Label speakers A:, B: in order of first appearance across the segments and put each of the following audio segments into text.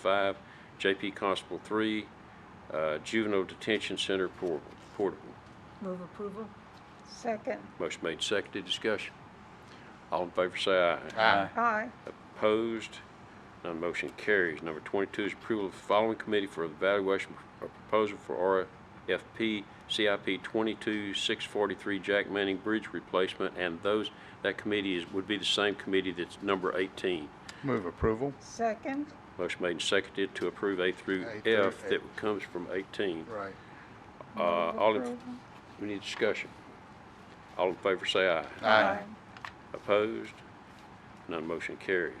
A: five, JP Constable three, uh, Juvenile Detention Center Por- Portable.
B: Move approval?
C: Second.
A: Motion made, seconded, discussion. All in favor say aye.
D: Aye.
C: Aye.
A: Opposed? None motion carries. Number 22 is approval of the following committee for evaluation of proposal for RFP CIP 22643 Jack Manning Bridge replacement, and those, that committee is, would be the same committee that's number 18.
D: Move approval.
C: Second.
A: Motion made and seconded to approve A through
D: A through
A: F that comes from 18.
D: Right.
A: Uh, All in, we need discussion. All in favor say aye.
D: Aye.
A: Opposed? None motion carries.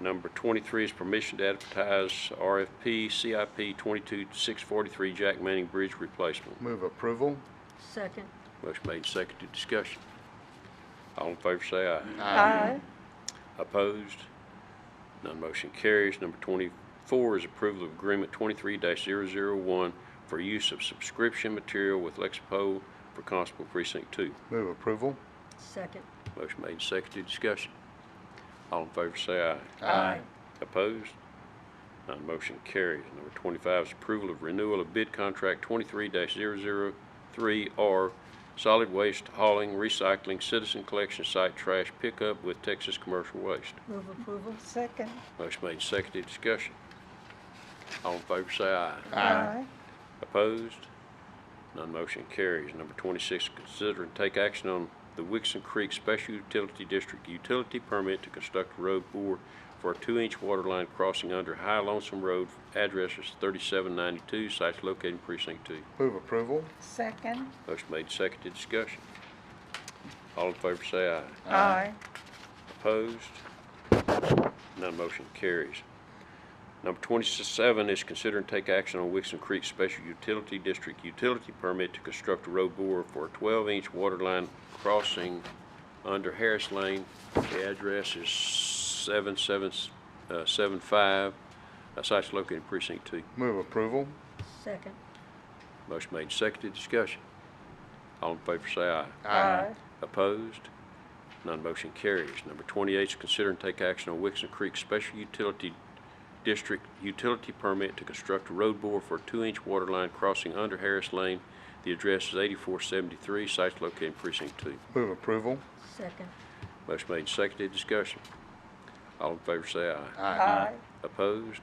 A: Number 23 is permission to advertise RFP CIP 22643 Jack Manning Bridge replacement.
D: Move approval.
B: Second?
A: Motion made and seconded, discussion. All in favor say aye.
C: Aye.
A: Opposed? None motion carries. Number 24 is approval of agreement 23-001 for use of subscription material with Lexipol for Constable Precinct 2.
D: Move approval.
B: Second?
A: Motion made and seconded, discussion. All in favor say aye.
B: Aye.
A: Opposed? None motion carries. Number 25 is approval of renewal of bid contract 23-003R Solid Waste Hauling, Recycling, Citizen Collection Site Trash Pickup with Texas Commercial Waste.
B: Move approval?
C: Second.
A: Motion made, seconded, discussion. All in favor say aye.
C: Aye.
A: Opposed? None motion carries. Number 26, consider and take action on the Wixon Creek Special Utility District Utility Permit to construct road bore for a two-inch water line crossing under High Lonesome Road, address is 3792, site located in precinct 2.
D: Move approval.
C: Second.
A: Motion made, seconded, discussion. All in favor say aye.
C: Aye.
A: Opposed? None motion carries. Number 27 is consider and take action on Wixon Creek Special Utility District Utility Permit to construct a road bore for a 12-inch water line crossing under Harris Lane. The address is 7775, uh, site's located in precinct 2.
D: Move approval.
B: Second?
A: Motion made, seconded, discussion. All in favor say aye.
C: Aye.
A: Opposed? None motion carries. Number 28 is consider and take action on Wixon Creek Special Utility District Utility Permit to construct a road bore for a two-inch water line crossing under Harris Lane. The address is 8473, site located in precinct 2.
D: Move approval.
B: Second?
A: Motion made, and seconded, discussion. All in favor say aye.
C: Aye.
A: Opposed?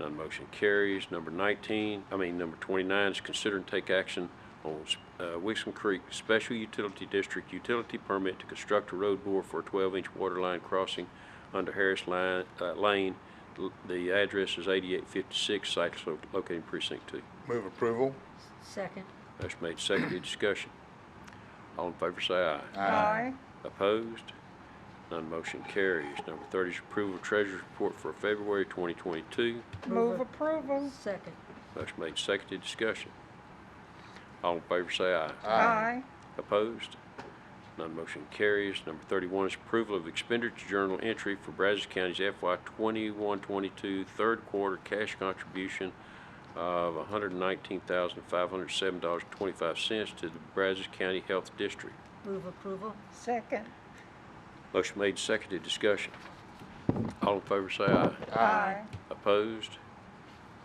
A: None motion carries. Number 19, I mean, number 29 is consider and take action on uh, Wixom Creek Special Utility District Utility Permit to construct a road bore for a 12-inch water line crossing under Harris Line- uh, Lane. L- The address is 8856, site is lo- located in precinct 2.
D: Move approval.
B: Second?
A: Motion made, seconded, discussion. All in favor, say aye.
C: Aye.
A: Opposed? None motion carries. Number 30 is approval of treasurer's report for February 2022.
C: Move approval.
B: Second?
A: Motion made, seconded, discussion. All in favor say aye.
C: Aye.
A: Opposed? None motion carries. Number 31 is approval of expenditure journal entry for Brazos County's FY 21-22 third quarter cash contribution of $119,507.25 to the Brazos County Health District.
B: Move approval?
C: Second.
A: Motion made, seconded, discussion. All in favor say aye.
C: Aye.
A: Opposed?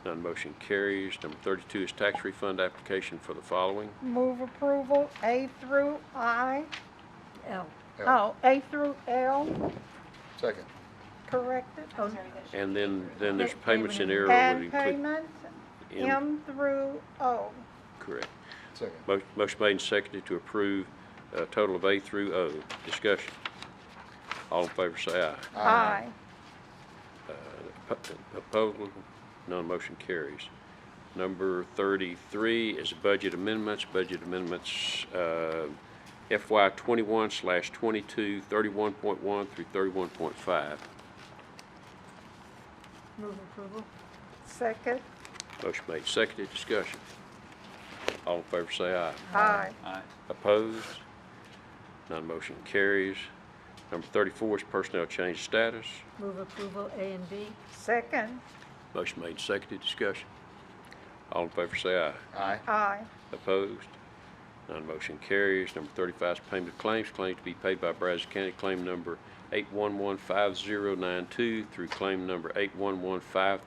A: None motion carries. Number 32 is tax refund application for the following.
C: Move approval A through I.
B: L?
C: Oh, A through L,
D: Second.
C: corrected.
B: Oh,
A: And then, then there's
B: Payment
A: payments in error would
C: And
A: include.
C: payment
A: M.
C: M through O.
A: Correct.
D: Second.
A: Mo- Motion made and seconded to approve a total of A through O. Discussion. All in favor say aye.
C: Aye.
A: Oppo- Opposed? None motion carries. Number 33 is budget amendments. Budget amendments uh, FY 21 slash 22, 31.1 through 31.5.
B: Move approval?
C: Second.
A: Motion made, seconded, discussion. All in favor say aye.
C: Aye.
A: Opposed? None motion carries. Number 34 is personnel change status.
B: Move approval A and B?
C: Second.
A: Motion made, seconded, discussion. All in favor say aye.
D: Aye.
C: Aye.
A: Opposed? None motion carries. Number 35 is payment of claims. Claim to be paid by Brazos County, claim number 8115092 through claim number 81153.